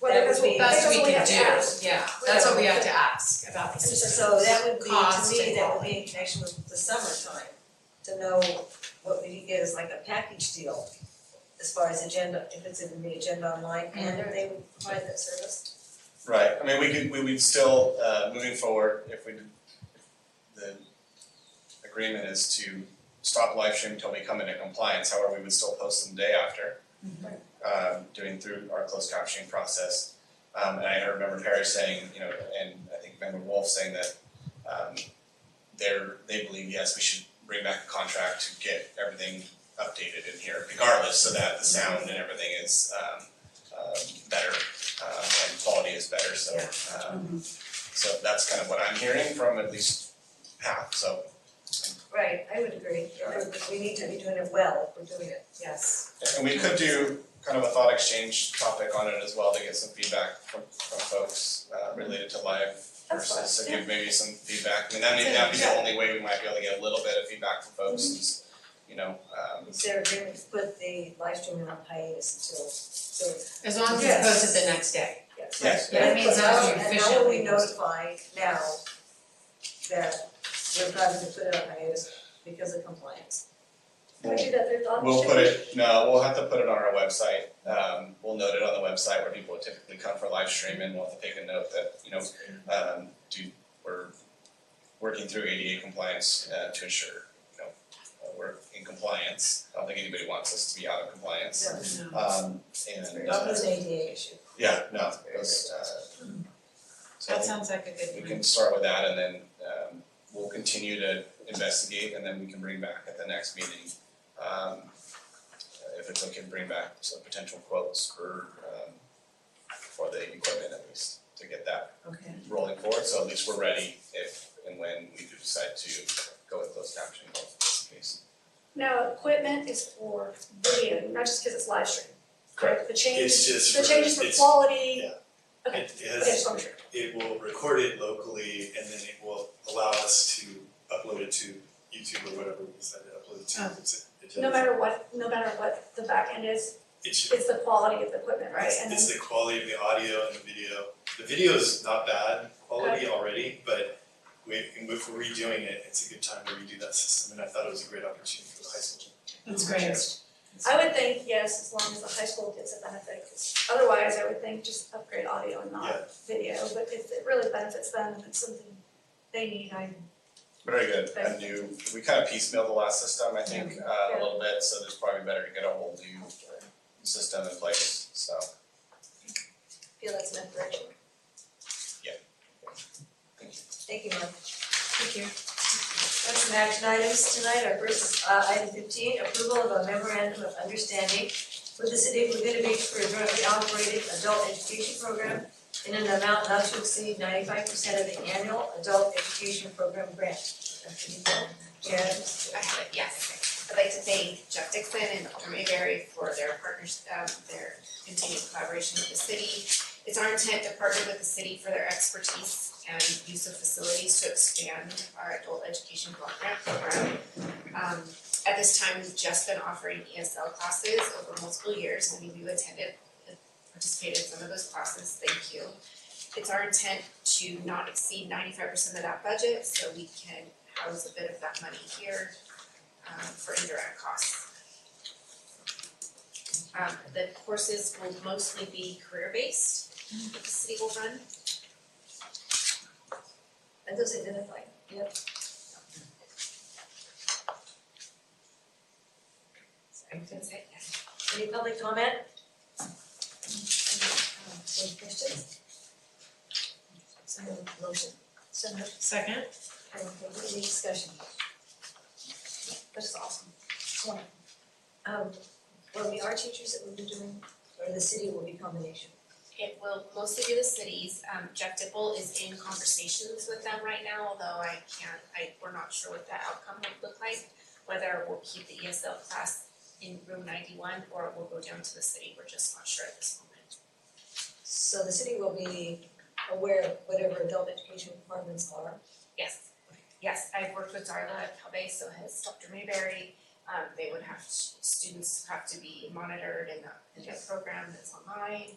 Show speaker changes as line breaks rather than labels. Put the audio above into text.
whatever
That would
we,
be-
that's
that's
what
what
we have to ask.
do, yeah, that's what we have to ask about the system.
So that would be,
Cost
to me, that would
involved.
be in connection with the summertime, to know what we could get as like a package deal as far as agenda, if it's in the agenda online,
Mm-hmm.
and if they would provide that service.
Right, I mean, we could, we would still, uh, moving forward, if we, did- if the agreement is to stop live stream until we come into compliance, however, we would still post them the day after. Um, doing through our closed captioning process. Um, and I remember Perry saying, you know, and I think Member Wolf saying that, um, they're, they believe, yes, we should bring back a contract to get everything updated in here regardless, so that the sound and everything is, um, um, better um, and quality is better, so um, so that's kind of what I'm hearing from at least half, so
Right, I would agree, we need to be doing it well, if we're doing it.
Yes,
and we could do kind of a thought exchange topic on it as well to get some feedback from from folks uh related to live
That's fine,
versus to give maybe some feedback, I mean, that may that be the only way we might be able to get a little bit of feedback from folks is, you know, um
Is there agreement to put the live streaming on hiatus until, so,
as long as it's
Yes.
posted the next day.
yes.
yes,
That means
But
that's
how-
the
And how
official
will we
thing.
notify now that we're having to put it on hiatus because of compliance?
Can we do that through thought
We'll put
exchange?
it, no, we'll have to put it on our website, um, we'll note it on the website where people typically come for live stream and we'll have to take a note that, you know, um, do, we're working through ADA compliance, uh, to ensure, you know, uh, we're in compliance, I don't think anybody wants us to be out of compliance. Um, and,
Not
uh,
as an ADA issue.
yeah, no, it's, uh,
That
so
sounds like a
we
good one.
can start with that and then, um, we'll continue to investigate and then we can bring back at the next meeting, um, uh, if it's okay to bring back some potential quotes for, um, for the equipment at least, to get that
Okay.
rolling forward, so at least we're ready if and when we do decide to go with closed captioning in this case.
No, equipment is for video, not just because it's live stream. The
It's
changes,
just
the
for-
changes for
it's-
quality,
yeah.
okay,
It
okay, just
has,
want to make sure.
it will record it locally and then it will allow us to upload it to YouTube or whatever we decide to upload it to. It's- it
Oh. No
does-
matter what, no matter what the back end is,
It should,
it's the quality of the equipment, right?
it's,
And then,
it's the quality of the audio and the video. The video is not bad quality already, but we, if we're redoing it, it's a good time to redo that system and I thought it was a great opportunity for the high school.
That's great.
I would think, yes, as long as the high school gets a benefit, 'cause otherwise I would think just upgrade audio and
Yeah.
not video. But if it really benefits them and it's something they need, I,
Very good, a new, we kind of piecemeal the last system, I think, uh, a little bit, so there's probably better to get a whole new system in place, so.
Feel that's my direction.
Yeah.
Thank you, Mark.
Thank you.
Got some action items tonight, our first, uh, item fifteen, approval of a memorandum of understanding with the city of Laguna Beach for a jointly operated adult education program in an amount not to exceed ninety-five percent of the annual adult education program grant. Dr. Nico, Jen,
I have it, yes. I'd like to thank Jeff Dixon and Alder Mayberry for their partners, um, their continued collaboration with the city. It's our intent to partner with the city for their expertise and use of facilities to expand our adult education block grant program. Um, at this time, we've just been offering ESL classes over multiple years, many of you attended, participated in some of those classes, thank you. It's our intent to not exceed ninety-five percent of that budget, so we can house a bit of that money here um, for indirect costs. Um, the courses will mostly be career-based that the city will run.
and those identified.
So I'm gonna say yes.
Any public comment? Any questions? So motion, so moved.
Second?
Okay, any discussion? That's awesome. Yeah. Um, well, we are teachers that will be doing, or the city will be combination.
It will mostly be the cities, um, Jeff Dipple is in conversations with them right now, although I can't, I, we're not sure what that outcome will look like. Whether we'll keep the ESL class in room ninety-one or we'll go down to the city, we're just not sure at this moment.
So the city will be aware of whatever adult education requirements are.
Yes, yes, I've worked with Darla at Cal Bay, so has Dr. Mayberry. Um, they would have, students have to be monitored in the, in the program that's online.